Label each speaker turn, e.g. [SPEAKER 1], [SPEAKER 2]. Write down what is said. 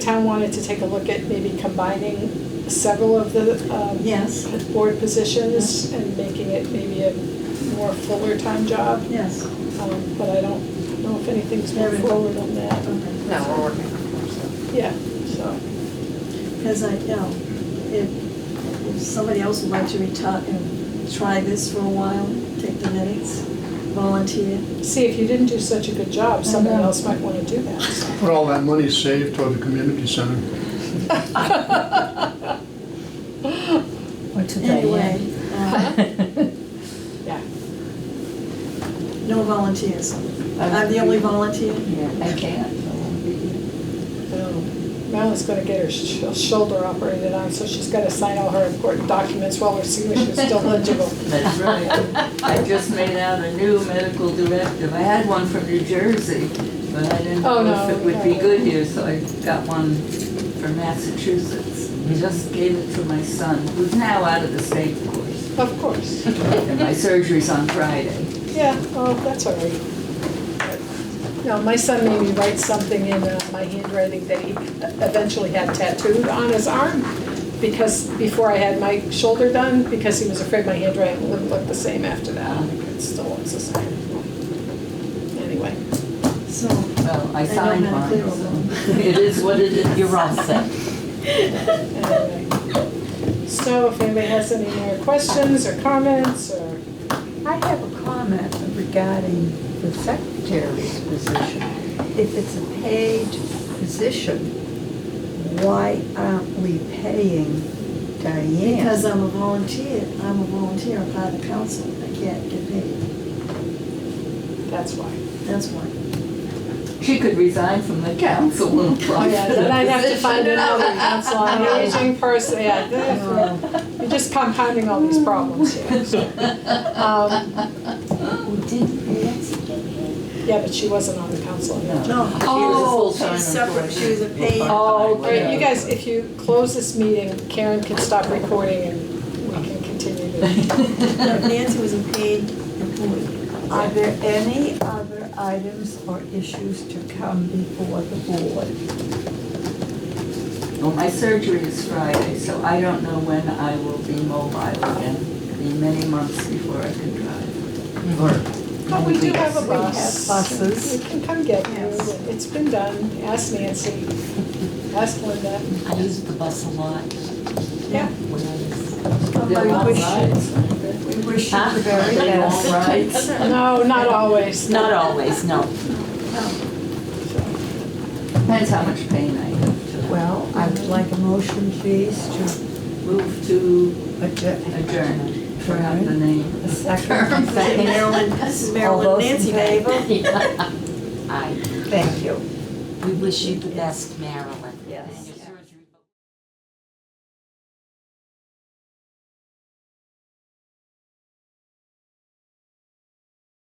[SPEAKER 1] town wanted to take a look at maybe combining several of the um,
[SPEAKER 2] Yes,
[SPEAKER 1] board positions and making it maybe a more fuller time job,
[SPEAKER 2] yes.
[SPEAKER 1] um, but I don't know if anything's moved forward on that.
[SPEAKER 3] No, we're working on it, so.
[SPEAKER 1] Yeah, so,
[SPEAKER 2] Because I, you know, if if somebody else would like to retire and try this for a while, take the minutes, volunteer.
[SPEAKER 1] see, if you didn't do such a good job, someone
[SPEAKER 2] know.
[SPEAKER 1] else might want to do that, so.
[SPEAKER 4] Put all that money saved toward the community center.
[SPEAKER 5] Or to
[SPEAKER 2] Anyway,
[SPEAKER 5] Diane.
[SPEAKER 2] uh,
[SPEAKER 1] Yeah,
[SPEAKER 2] no volunteers. I'm the only volunteer.
[SPEAKER 5] I can't.
[SPEAKER 1] so Marilyn's gonna get her sh- shoulder operated on, so she's gotta sign all her important documents while her signature's still legible.
[SPEAKER 3] That's right. I just made out a new medical directive. I had one from New Jersey, but I didn't
[SPEAKER 1] Oh,
[SPEAKER 3] know if
[SPEAKER 1] no,
[SPEAKER 3] it would be
[SPEAKER 1] no.
[SPEAKER 3] good here, so I got one from Massachusetts. Just gave it to my son, who's now out of the state, of course.
[SPEAKER 1] Of course,
[SPEAKER 3] And my surgery's on Friday.
[SPEAKER 1] yeah, oh, that's all right. No, my son made me write something in uh, my handwriting that he eventually had tattooed on his arm because, before I had my shoulder done, because he was afraid my handwriting wouldn't look the same after that. I think It still looks the same. Anyway,
[SPEAKER 2] So,
[SPEAKER 3] Well, I
[SPEAKER 2] They don't
[SPEAKER 3] signed
[SPEAKER 2] have
[SPEAKER 3] mine,
[SPEAKER 2] clear
[SPEAKER 3] so it is what it is.
[SPEAKER 5] You're all set.
[SPEAKER 1] anyway. So if anybody has any more questions or comments or,
[SPEAKER 6] I have a comment regarding the secretary's position. If it's a paid position, why aren't we paying
[SPEAKER 2] because
[SPEAKER 6] Diane?
[SPEAKER 2] I'm a volunteer, I'm a volunteer, I'm part of the council, I can't get paid.
[SPEAKER 1] that's why.
[SPEAKER 2] That's why.
[SPEAKER 3] She could resign from the council and
[SPEAKER 1] Oh,
[SPEAKER 3] apply
[SPEAKER 1] yeah,
[SPEAKER 3] for the
[SPEAKER 1] then I'd have to find
[SPEAKER 3] position.
[SPEAKER 1] another council on aging person, yeah. then- You're just compounding all these problems here. so. Um,
[SPEAKER 5] We did Nancy get paid?
[SPEAKER 1] Yeah, but she wasn't on the council. yeah.
[SPEAKER 2] No.
[SPEAKER 3] She was a
[SPEAKER 2] Oh,
[SPEAKER 3] full-time
[SPEAKER 2] she's separate,
[SPEAKER 3] employee.
[SPEAKER 2] she was a paid.
[SPEAKER 1] Oh, great, you
[SPEAKER 3] Yeah.
[SPEAKER 1] guys, if you close this meeting, Karen can stop recording and we can continue. the-
[SPEAKER 2] No, Nancy was a paid employee.
[SPEAKER 6] Are there any other items or issues to come before the board?
[SPEAKER 3] Well, my surgery is Friday, so I don't know when I will be mobile again. It'll be many months before I can drive.
[SPEAKER 1] But we do have a
[SPEAKER 6] We have
[SPEAKER 1] bus.
[SPEAKER 6] buses.
[SPEAKER 1] You can come get you,
[SPEAKER 2] Yes.
[SPEAKER 1] it's been done, ask Nancy, ask Linda,
[SPEAKER 7] I used the bus a lot
[SPEAKER 1] yeah.
[SPEAKER 7] when I was,
[SPEAKER 3] They're
[SPEAKER 2] I
[SPEAKER 3] long
[SPEAKER 2] wish,
[SPEAKER 3] rides.
[SPEAKER 2] we wish you the very
[SPEAKER 3] They're
[SPEAKER 2] best.
[SPEAKER 3] long rides.
[SPEAKER 1] No, not always.
[SPEAKER 7] not always, no.
[SPEAKER 3] Depends how much pain I have to
[SPEAKER 6] Well, I would like a motion, please, to
[SPEAKER 3] move to
[SPEAKER 6] adjourn.
[SPEAKER 3] adjourn. Forgot the name.
[SPEAKER 6] A second.
[SPEAKER 2] Marilyn, this is Marilyn,
[SPEAKER 6] All those
[SPEAKER 2] Nancy,
[SPEAKER 6] in favor?
[SPEAKER 2] baby.
[SPEAKER 7] I,
[SPEAKER 6] Thank you.
[SPEAKER 7] we wish you the best, Marilyn.
[SPEAKER 6] Yes.